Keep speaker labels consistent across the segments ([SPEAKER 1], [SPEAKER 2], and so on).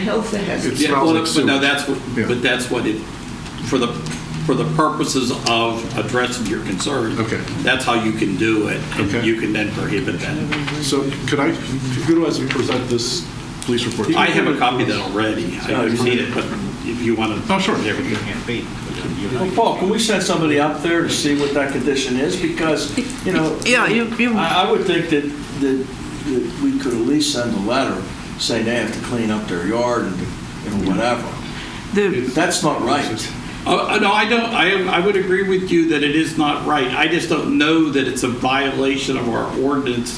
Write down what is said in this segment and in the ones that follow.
[SPEAKER 1] health hazard.
[SPEAKER 2] It
[SPEAKER 3] Yeah,
[SPEAKER 2] smells
[SPEAKER 3] well,
[SPEAKER 2] like
[SPEAKER 3] But now
[SPEAKER 2] sewage.
[SPEAKER 3] that's, what-
[SPEAKER 2] Yeah.
[SPEAKER 3] but that's what it, for the, for the purposes of addressing your concern.
[SPEAKER 2] Okay.
[SPEAKER 3] That's how you can do it. and
[SPEAKER 2] Okay.
[SPEAKER 3] You can then prohibit that.
[SPEAKER 2] So could I, who do I present this police report? to?
[SPEAKER 3] I have a copy of that already. I've seen it, but if you want to.
[SPEAKER 2] Oh, sure.
[SPEAKER 4] Well, Paul, can we send somebody up there to see what that condition is? Because, you know.
[SPEAKER 1] Yeah, you- you-
[SPEAKER 4] I, I would think that, that, that we could at least send a letter saying they have to clean up their yard and, and whatever.
[SPEAKER 1] The,
[SPEAKER 4] That's not right.
[SPEAKER 3] Oh, no, I don't, I, am- I would agree with you that it is not right. I just don't know that it's a violation of our ordinance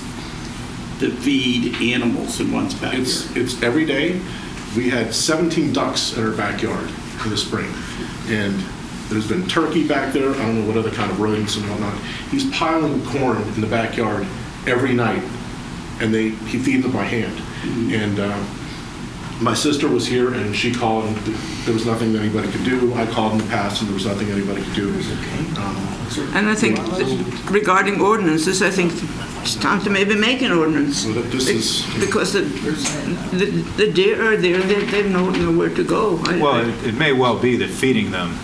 [SPEAKER 3] to feed animals in one's backyard.
[SPEAKER 2] It's, it's every day. We had 17 ducks in our backyard in the spring. And there's been turkey back there, I don't know what other kind of rodents and whatnot. He's piling corn in the backyard every night, and they, he feeds them by hand.
[SPEAKER 3] Mm-hmm.
[SPEAKER 2] And uh, my sister was here, and she called, and th- there was nothing that anybody could do. I called in the past, and there was nothing anybody could do. Um,
[SPEAKER 1] and I think regarding ordinances, I think it's time to maybe make an ordinance.
[SPEAKER 2] So that this is-
[SPEAKER 1] Because the, the, the deer are there, they, they know nowhere to go. I-
[SPEAKER 5] Well, it- it may well be that feeding them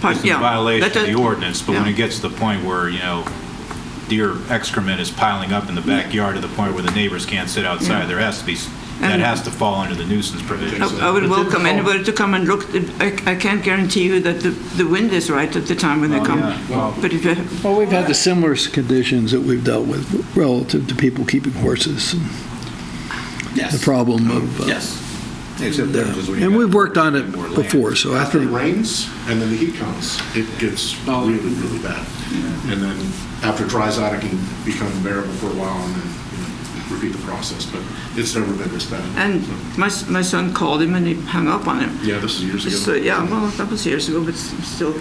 [SPEAKER 1] Part-
[SPEAKER 5] is in
[SPEAKER 1] yeah,
[SPEAKER 5] violation of
[SPEAKER 1] that-
[SPEAKER 5] the ordinance, but when
[SPEAKER 1] yeah.
[SPEAKER 5] it gets to the point where, you know, deer excrement is piling up in the backyard to the point where the neighbors can't sit outside, there has to be, s- that
[SPEAKER 1] And-
[SPEAKER 5] has to fall under the nuisance provision.
[SPEAKER 1] I- I would welcome anybody to come and look. I, I can't guarantee you that the, the wind is right at the time when they
[SPEAKER 5] Oh,
[SPEAKER 1] come.
[SPEAKER 5] yeah. Well-
[SPEAKER 1] But if, you-
[SPEAKER 6] Well, we've had the similar conditions that we've dealt with relative to people keeping horses and the
[SPEAKER 3] Yes.
[SPEAKER 6] problem of. uh,
[SPEAKER 3] Yes.
[SPEAKER 6] And we've worked on it before, so I
[SPEAKER 2] After it
[SPEAKER 6] think,
[SPEAKER 2] rains and then the heat comes, it gets
[SPEAKER 3] Oh.
[SPEAKER 2] really, really bad. And then after it dries out, it can become bearable for a while and then you know, repeat the process. But it's never been this bad.
[SPEAKER 1] and
[SPEAKER 2] So,
[SPEAKER 1] my, s- my son called him and he hung up on him.
[SPEAKER 2] yeah, this is years ago.
[SPEAKER 1] So, uh, yeah, well, that was years ago, but s- still,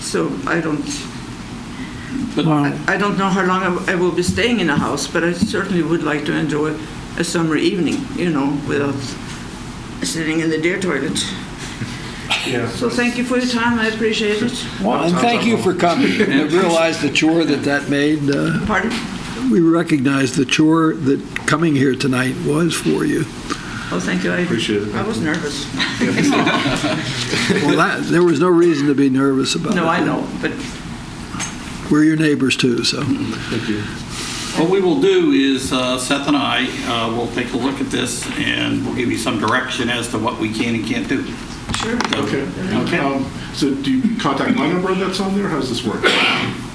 [SPEAKER 1] so I don't, I I don't know how long I w- I will be staying in a house, but I certainly would like to enjoy a summer evening, you know, without sitting in the deer toilet.
[SPEAKER 2] Yeah.
[SPEAKER 1] So thank you for your time, I appreciate it.
[SPEAKER 6] Well, and thank you for coming. I realize the chore that that made. uh,
[SPEAKER 1] Pardon?
[SPEAKER 6] We recognize the chore that coming here tonight was for you.
[SPEAKER 1] Oh, thank you. I
[SPEAKER 2] Appreciate it.
[SPEAKER 1] I was nervous.
[SPEAKER 6] Well, that, there was no reason to be nervous about it.
[SPEAKER 1] No, I know, but
[SPEAKER 6] We're your neighbors too, so.
[SPEAKER 3] What we will do is uh, Seth and I uh, will take a look at this and we'll give you some direction as to what we can and can't do.
[SPEAKER 1] sure.
[SPEAKER 3] So-
[SPEAKER 2] Okay.
[SPEAKER 3] Okay.
[SPEAKER 2] Um, so do you contact my number that's on there? How does this work?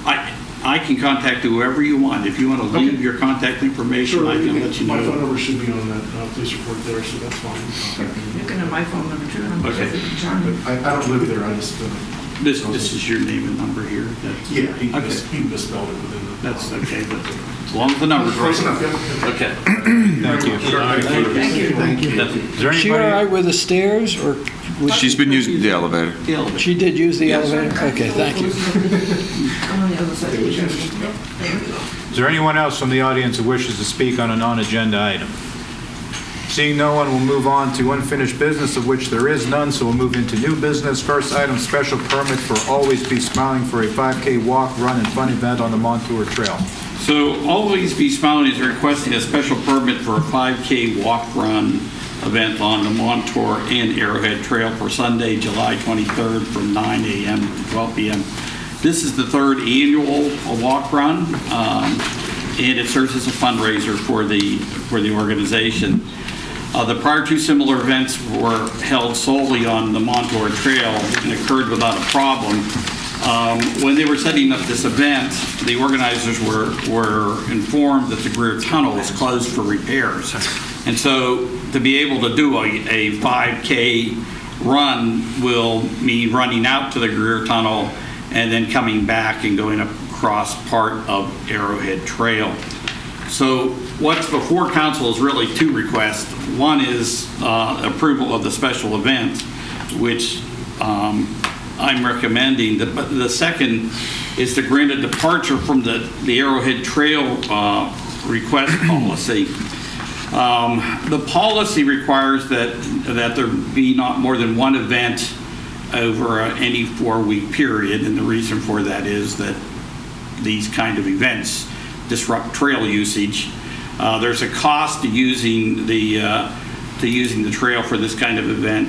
[SPEAKER 3] I, I can contact whoever you want. If you want to leave
[SPEAKER 2] Okay.
[SPEAKER 3] your contact information, I can let you
[SPEAKER 2] My phone
[SPEAKER 3] know.
[SPEAKER 2] number should be on that uh, police report there, so that's fine.
[SPEAKER 1] You can have my phone number too. I'm
[SPEAKER 3] Okay.
[SPEAKER 1] perfectly charming.
[SPEAKER 2] I, I don't live there. I just uh,
[SPEAKER 3] This, this is your name and number here. That's-
[SPEAKER 2] yeah. He,
[SPEAKER 3] Okay.
[SPEAKER 2] mis- he misspelled it within the.
[SPEAKER 3] That's okay, but as long as the number's
[SPEAKER 2] Close
[SPEAKER 3] right.
[SPEAKER 2] enough. Yeah.
[SPEAKER 3] Okay.
[SPEAKER 5] Thank you.
[SPEAKER 2] Thank you. Thank you.
[SPEAKER 3] That's-
[SPEAKER 5] Is there
[SPEAKER 6] Is she all
[SPEAKER 5] anybody,
[SPEAKER 6] right with the stairs, or was she,
[SPEAKER 7] She's been using the elevator.
[SPEAKER 3] Dale,
[SPEAKER 6] she did use the elevator? Okay, thank you.
[SPEAKER 1] I'm on the other side. of the table.
[SPEAKER 5] is there anyone else from the audience who wishes to speak on a non-agenda item? Seeing no one, we'll move on to unfinished business, of which there is none, so we'll move into new business. First item, special permit for Always Be Smiling for a 5K walk, run, and fun event on the Montour Trail.
[SPEAKER 3] So Always Be Smiling is requesting a special permit for a 5K walk-run event on the Montour and Arrowhead Trail for Sunday, July 23rd, from 9 a.m. to 12 p.m. This is the third annual uh, walk-run, um, and it serves as a fundraiser for the, for the organization. Uh, The prior two similar events were held solely on the Montour Trail and occurred without a problem. Um, When they were setting up this event, the organizers were, were informed that the Greer Tunnel was closed for repairs. And so to be able to do a, a 5K run will mean running out to the Greer Tunnel and then coming back and going across part of Arrowhead Trail. So what's before council is really two requests. One is uh, approval of the special event, which um, I'm recommending. The- But the second is to grant a departure from the the Arrowhead Trail uh, request policy. Um, The policy requires that, that there be not more than one event over uh, any four-week period, and the reason for that is that these kind of events disrupt trail usage. Uh, There's a cost to using the, uh, to using the trail for this kind of event